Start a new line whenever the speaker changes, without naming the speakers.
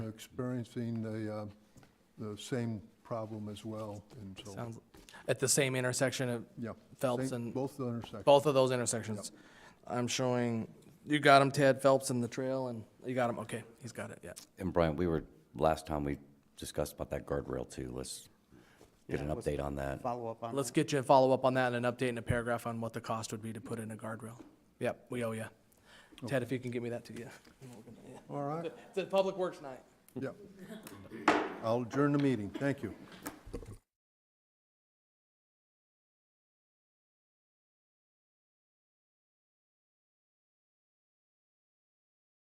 experiencing the, uh, the same problem as well, and so,
Sounds, at the same intersection of
yeah.
Phelps
same-
and,
Both the intersections,
both of those intersections. I'm showing, you got them, Tad Phelps and the trail, and, you got him, okay, he's got it, yeah.
Uh-huh.
And Brian, we were, last time we discussed about that guardrail too. Let's get
Yeah,
an
let's
update on that.
Follow up on that.
Let's get you a follow-up on that and an update and a paragraph on what the cost would be to put in a guardrail. Yep, we owe you. Ted, if you can give me that too, yeah.
all right,
It's a public works night.
yeah. I'll adjourn the meeting, thank you.